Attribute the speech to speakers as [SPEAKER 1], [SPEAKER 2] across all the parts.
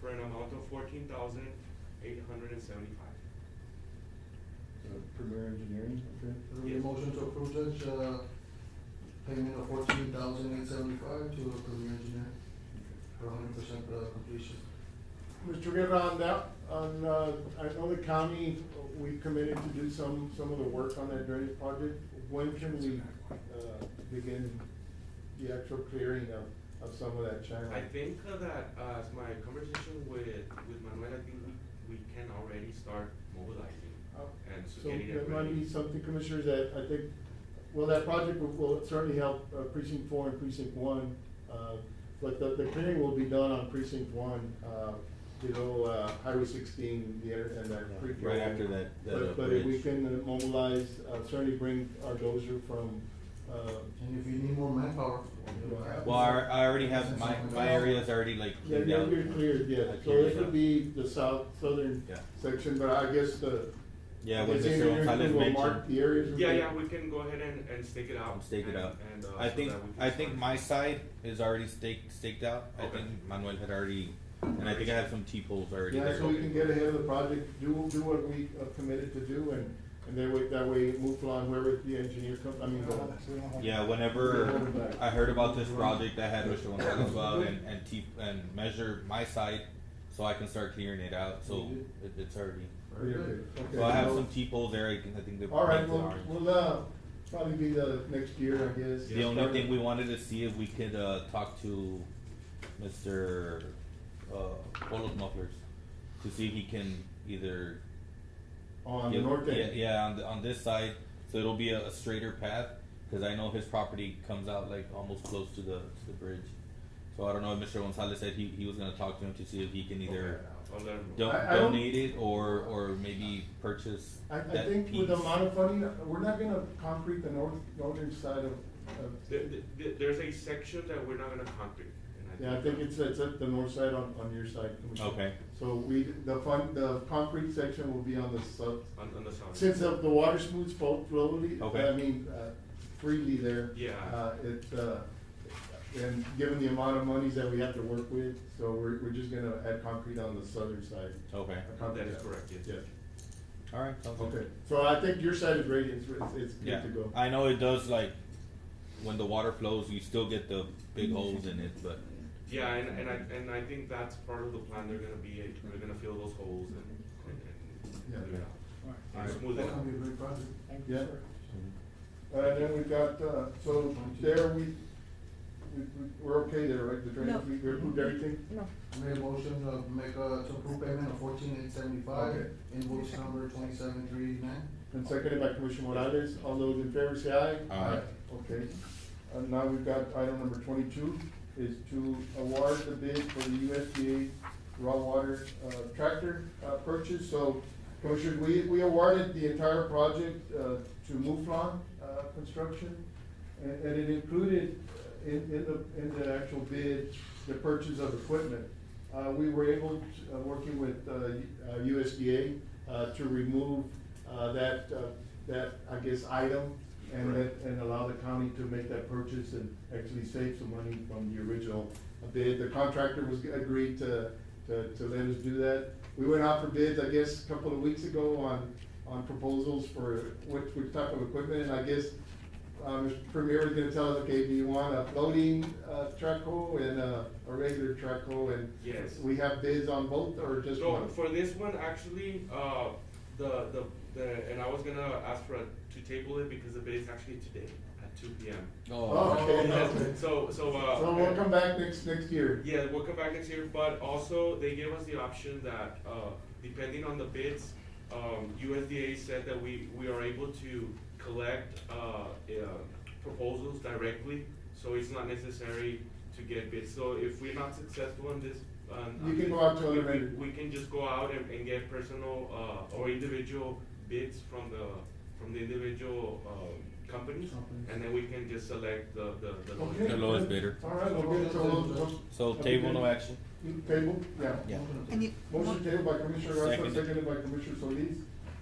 [SPEAKER 1] for an amount of fourteen thousand eight hundred and seventy-five.
[SPEAKER 2] Uh, Premier Engineering, okay.
[SPEAKER 3] Do we have a motion to approve, Judge, uh, payment of fourteen thousand eight seventy-five to a Premier Engineer for hundred percent completion?
[SPEAKER 4] Mr. Guerra, on that, on, uh, I know the county, uh, we committed to do some, some of the work on that drainage project. When can we, uh, begin the actual clearing of, of some of that channel?
[SPEAKER 1] I think uh, that, uh, as my conversation with, with Manuel, I think we, we can already start mobilizing
[SPEAKER 4] Oh.
[SPEAKER 1] and so
[SPEAKER 4] So
[SPEAKER 1] getting it ready.
[SPEAKER 4] that might be something, Commissioners, that I think, well, that project will- will certainly help uh, precinct four and precinct one. uh, But the, the clearing will be done on precinct one, uh, you know, uh, Highway sixteen, the, inter- and that creek.
[SPEAKER 2] Right
[SPEAKER 4] area.
[SPEAKER 2] after that- that, uh,
[SPEAKER 4] But, but if we
[SPEAKER 2] bridge.
[SPEAKER 4] can uh, mobilize, uh, certainly bring our dozer from, uh,
[SPEAKER 3] And if you need more manpower.
[SPEAKER 2] Well, I, I already have, my, my area's already like
[SPEAKER 4] yeah,
[SPEAKER 2] cleaned
[SPEAKER 4] you're,
[SPEAKER 2] out.
[SPEAKER 4] you're cleared, yeah.
[SPEAKER 2] I
[SPEAKER 4] So
[SPEAKER 2] cleared
[SPEAKER 4] it
[SPEAKER 2] out.
[SPEAKER 4] would be the south, southern
[SPEAKER 2] Yeah.
[SPEAKER 4] section, but I guess the.
[SPEAKER 2] Yeah,
[SPEAKER 4] I
[SPEAKER 2] what
[SPEAKER 4] guess the
[SPEAKER 2] Mr.
[SPEAKER 4] engineering
[SPEAKER 2] Gonzalez
[SPEAKER 4] crew will Mark
[SPEAKER 2] mentioned.
[SPEAKER 4] the areas.
[SPEAKER 1] Yeah, yeah, we can go ahead and, and stake it out.
[SPEAKER 2] I'm staking
[SPEAKER 1] and-
[SPEAKER 2] out.
[SPEAKER 1] and, uh,
[SPEAKER 2] I
[SPEAKER 1] so
[SPEAKER 2] think,
[SPEAKER 1] that we can
[SPEAKER 2] I think
[SPEAKER 1] start.
[SPEAKER 2] my side is already staked, staked out. I
[SPEAKER 1] Okay.
[SPEAKER 2] think Manuel had already, and I think I have some T-poles already there.
[SPEAKER 4] Yeah, so we can get ahead of the project, do, do what we uh, committed to do, and, and that way, that way move along wherever the engineer comes, I mean, go.
[SPEAKER 2] Yeah, whenever I heard about this project, I had Mr. Gonzalez go out and, and T, and measure my side, so I can start clearing it out, so it, it's already.
[SPEAKER 4] Very good.
[SPEAKER 2] So I have
[SPEAKER 4] Okay.
[SPEAKER 2] some T-poles there, I can, I think they're.
[SPEAKER 4] All right,
[SPEAKER 2] painted
[SPEAKER 4] we'll,
[SPEAKER 2] orange.
[SPEAKER 4] we'll, uh, probably be the next year, I guess.
[SPEAKER 2] The only thing we wanted to see if we could, uh, talk to Mr. uh, Polos Mufflers to see if he can either.
[SPEAKER 4] On the
[SPEAKER 2] give-
[SPEAKER 4] north
[SPEAKER 2] Yeah,
[SPEAKER 4] end.
[SPEAKER 2] yeah, on the, on this side, so it'll be a, a straighter path, cause I know his property comes out like almost close to the, to the bridge. So I don't know if Mr. Gonzalez said he, he was gonna talk to him to see if he can either
[SPEAKER 1] I'll let him know.
[SPEAKER 2] don-
[SPEAKER 4] I- I don't-
[SPEAKER 2] donate it or, or maybe purchase
[SPEAKER 4] I, I
[SPEAKER 2] that
[SPEAKER 4] think with the
[SPEAKER 2] piece.
[SPEAKER 4] amount of funding, we're not gonna concrete the north, northern side of, of,
[SPEAKER 1] There, there, there's a section that we're not gonna concrete. and
[SPEAKER 4] yeah, I think it's, it's at the north side on, on your side, Commissioner.
[SPEAKER 2] Okay.
[SPEAKER 4] So we, the fun, the concrete section will be on the south,
[SPEAKER 1] On, on the south.
[SPEAKER 4] Since the, the water smooths fo- flowly,
[SPEAKER 2] Okay.
[SPEAKER 4] I mean, uh, freely there.
[SPEAKER 1] Yeah.
[SPEAKER 4] Uh, it, uh, and given the amount of monies that we have to work with, so we're, we're just gonna add concrete on the southern side.
[SPEAKER 2] Okay,
[SPEAKER 4] A concrete
[SPEAKER 1] That is
[SPEAKER 4] pad.
[SPEAKER 1] correct, yes.
[SPEAKER 4] Yeah,
[SPEAKER 2] alright, sounds good.
[SPEAKER 4] okay, so I think your side is ready, it's, it's- it's good
[SPEAKER 2] Yeah,
[SPEAKER 4] to go.
[SPEAKER 2] I know it does like when the water flows, you still get the big holes in it, but
[SPEAKER 1] Yeah, and, and I, and I think that's part of the plan, they're gonna be, they're gonna fill those holes and, and,
[SPEAKER 4] Yeah.
[SPEAKER 1] and, do it out.
[SPEAKER 5] Alright.
[SPEAKER 1] and smooth it
[SPEAKER 3] That's
[SPEAKER 1] out.
[SPEAKER 3] gonna be a great project.
[SPEAKER 5] Thank you,
[SPEAKER 4] Yeah.
[SPEAKER 5] sir.
[SPEAKER 4] Uh, then we got, uh, so there we, we, we- we're okay there, right, the drainage,
[SPEAKER 6] No.
[SPEAKER 4] we we approved everything?
[SPEAKER 6] No.
[SPEAKER 3] I Made a motion to make a, to approve payment of fourteen eight
[SPEAKER 4] Okay.
[SPEAKER 3] seventy-five, invoice number twenty-seven three eighty-nine.
[SPEAKER 4] And seconded by Commissioner Morales, all those in favor say aye.
[SPEAKER 2] Aye.
[SPEAKER 4] Okay, and now we've got item number twenty-two, is to award the bid for the USDA raw water uh, tractor uh, purchase. So Commissioner, we, we awarded the entire project uh, to Muflon uh, Construction, and, and it included uh, in, in the, in the actual bid, the purchase of equipment. Uh, we were able, to, uh, working with, uh, U- uh, USDA, uh, to remove, uh, that, uh, that, I guess, item and
[SPEAKER 1] Right.
[SPEAKER 4] let, and allow the county to make that purchase and actually save some money from the original bid. The contractor was, agreed to, to, to let us do that. We went out for bids, I guess, a couple of weeks ago on, on proposals for what, which type of equipment, and I guess, um, Mr. Premier was gonna tell us, okay, do you want a floating, uh, track hole and a, a regular track hole, and
[SPEAKER 1] Yes.
[SPEAKER 4] we have bids on both, or just
[SPEAKER 1] No,
[SPEAKER 4] one?
[SPEAKER 1] for this one, actually, uh, the, the, the, and I was gonna ask for, a- to table it because the bid is actually today at two P M.
[SPEAKER 4] Oh, okay.
[SPEAKER 1] So, so, uh.
[SPEAKER 4] So we'll come back next, next year.
[SPEAKER 1] Yeah, we'll come back next year, but also they gave us the option that, uh, depending on the bids, um, USDA said that we, we are able to collect, uh, uh, proposals directly, so it's not necessary to get bids. So if we're not successful in this, um.
[SPEAKER 4] You can go out to
[SPEAKER 1] we-
[SPEAKER 4] other
[SPEAKER 1] we-
[SPEAKER 4] vendors.
[SPEAKER 1] We can just go out and, and get personal, uh, or individual bids from the, from the individual, um, companies,
[SPEAKER 3] Companies.
[SPEAKER 1] and then we can just select the, the, the.
[SPEAKER 4] Okay.
[SPEAKER 2] The lowest bidder.
[SPEAKER 4] All right, we'll get it, so we'll- we'll-
[SPEAKER 2] so table no action.
[SPEAKER 4] Table, yeah.
[SPEAKER 2] Yeah.
[SPEAKER 6] And you,
[SPEAKER 4] Motion tabled by Commissioner Garza,
[SPEAKER 2] Second.
[SPEAKER 4] seconded by Commissioner Solis.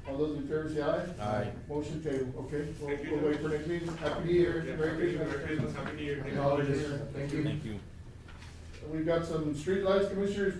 [SPEAKER 4] All those in favor say aye.
[SPEAKER 2] Aye.
[SPEAKER 4] Motion tabled, okay. We'll,
[SPEAKER 1] Thank you.
[SPEAKER 4] we'll wait for next meeting. Happy New Year.
[SPEAKER 1] Yeah,
[SPEAKER 4] Merry
[SPEAKER 1] Happy-
[SPEAKER 4] Christmas.
[SPEAKER 1] Merry Christmas, Happy New Year.
[SPEAKER 3] Happy
[SPEAKER 1] Thank you.
[SPEAKER 3] holidays. Thank you.
[SPEAKER 2] Thank you.
[SPEAKER 4] We've got some streetlights, Commissioners.